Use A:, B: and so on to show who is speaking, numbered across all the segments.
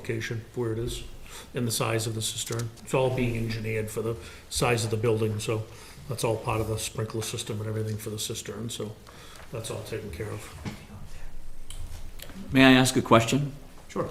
A: location of where it is and the size of the cistern. It's all being engineered for the size of the building, so that's all part of the sprinkler system and everything for the cistern, so that's all taken care of.
B: May I ask a question?
A: Sure.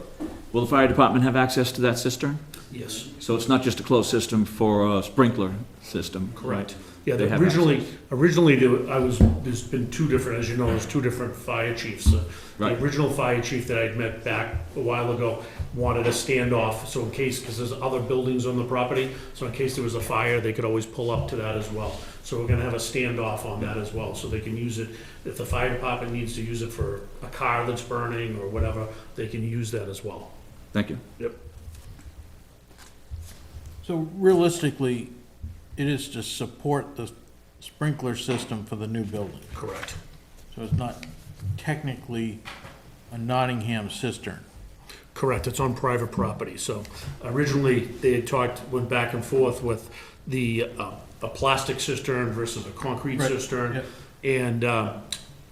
B: Will the fire department have access to that cistern?
A: Yes.
B: So it's not just a closed system for a sprinkler system?
A: Correct. Yeah,
B: They
A: they-
B: have
A: originally, originally, there- I was, there's been two different, as you know, there's two different fire chiefs. Uh,
B: Right.
A: The original fire chief that I'd met back a while ago wanted a standoff, so in case, because there's other buildings on the property, so in case there was a fire, they could always pull up to that as well. So we're gonna have a standoff on that as well, so they can use it, if the fire department needs to use it for a car that's burning or whatever, they can use that as well.
B: Thank you.
C: So realistically, it is to support the sprinkler system for the new building.
A: Correct.
C: So it's not technically a Nottingham cistern.
A: Correct, it's on private property, so originally, they had talked, went back and forth with the, uh, a plastic cistern versus a concrete
C: Right,
A: cistern.
C: yeah.
A: And, uh,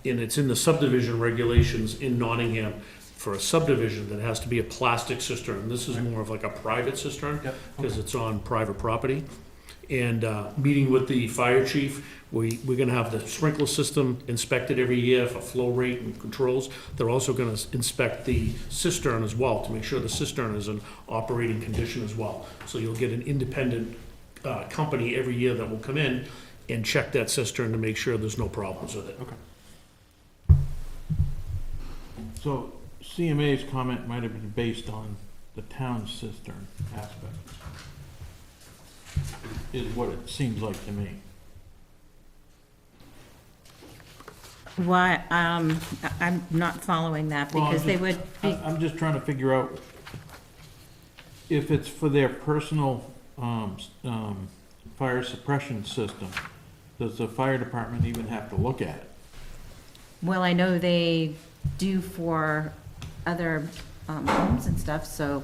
A: and it's in the subdivision regulations in Nottingham, for a subdivision that has to be a plastic cistern, this is more of like a private cistern,
C: Yep,
A: because it's on private property. And, uh, meeting with the fire chief, we, we're gonna have the sprinkler system inspected every year for flow rate and controls. They're also gonna inspect the cistern as well, to make sure the cistern is in operating condition as well. So you'll get an independent, uh, company every year that will come in and check that cistern to make sure there's no problems with it.
C: So CMA's comment might have been based on the town cistern aspect. Is what it seems like to me.
D: Why, um, I- I'm not following that
C: Well, uh, I'm
D: because they
C: just-
D: would
C: I-
D: be,
C: I'm just trying to figure out if it's for their personal um, s- um, fire suppression system, does the fire department even have to look at it?
D: well, I know they do for other um, homes and stuff, so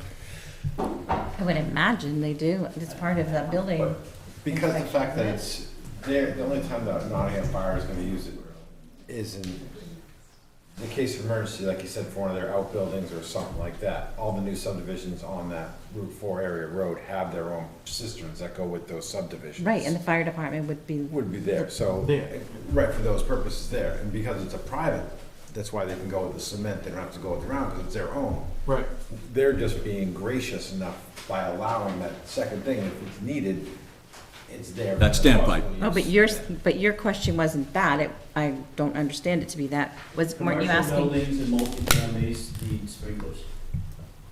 D: I would imagine they do. It's part of the building.
E: Because the fact that it's, there, the only time that Nottingham Fire is gonna use it is in the case of emergency, like you said, for one of their outbuildings or something like that. All the new subdivisions on that Route Four area road have their own cisterns that go with those subdivisions.
D: Right, and the fire department would be,
E: Would be there, so,
C: There.
E: right, for those purposes there, and because it's a private, that's why they can go with the cement, they don't have to go with the round, because it's their own.
C: Right.
E: They're just being gracious enough by allowing that second thing, if it's needed, it's there.
B: That standpipe.
D: oh, but your, but your question wasn't that. It- I don't understand it to be that. Was, weren't you
F: Commercial
D: asking?
F: buildings and multifamilies need sprinklers.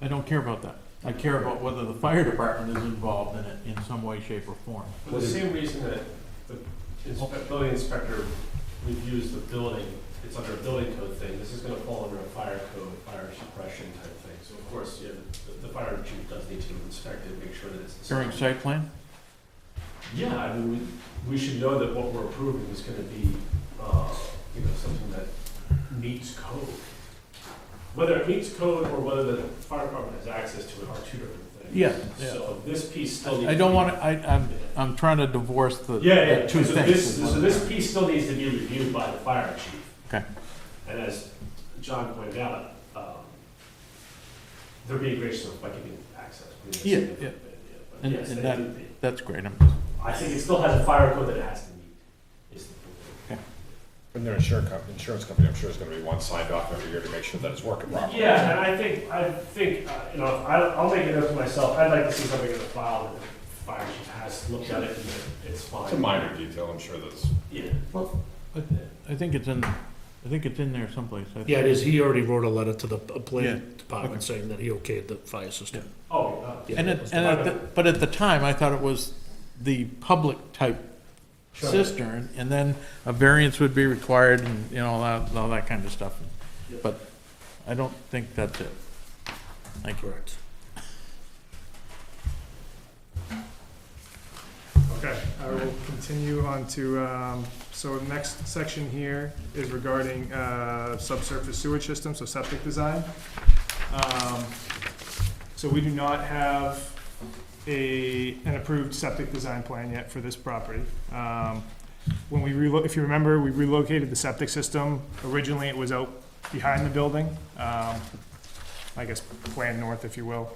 C: I don't care about that. I care about whether the fire department is involved in it in some way, shape, or form.
G: For the same reason that the inspe- building inspector reviews the building, it's under a building code thing, this is gonna fall under a fire code, fire suppression type thing. So of course, yeah, the, the fire chief does need to inspect it, make sure that it's.
C: During site plan?
G: Yeah, I mean, we, we should know that what we're approving is gonna be, uh, you know, something that meets code. Whether it meets code or whether the fire department has access to it are two different things.
C: Yeah, yeah.
G: So this piece still needs.
C: I don't want to, I, I'm, I'm trying to divorce the
G: Yeah,
C: the
G: yeah, so
C: two
G: this,
C: things.
G: so this piece still needs to be reviewed by the fire chief.
C: Okay.
G: And as John pointed out, um, they're being gracious enough by giving access. I mean, that's a
C: Yeah,
G: different
C: yeah.
G: bit, but
C: And-
G: yes,
C: and
G: they
C: that-
G: do need-
C: That's great. I'm-
G: I think it still has a fire code that it has to meet, is the point.
E: And their insurance company, insurance company, I'm sure is gonna be one signed off every year to make sure that it's working properly.
G: Yeah, and I think, I think, uh, you know, I'll, I'll make it up to myself, I'd like to see something in the file that the fire chief has looked at it and that it's fine.
E: It's a minor detail, I'm sure that's.
G: Yeah,
C: I I think it's in, I think it's in there someplace. I think-
A: Yeah, it is, he already wrote a letter to the uh,
C: Yeah,
A: planning department saying that he okayed the fire system.
G: oh, uh,
A: Yeah,
C: And
A: that
C: at,
A: was
C: and
A: the-
C: at the, but at the time, I thought it was the public type
G: Sure.
C: cistern, and then a variance would be required and, you know, all that, all that kind of stuff.
G: Yeah.
C: But I don't think that's it. Thank you.
A: Correct.
H: Okay, I will continue on to, um, so the next section here is regarding uh, subsurface sewage system, so septic design. Um, So we do not have a, an approved septic design plan yet for this property. Um, When we relo, if you remember, we relocated the septic system. Originally, it was out behind the building, um, I guess, plan north, if you will.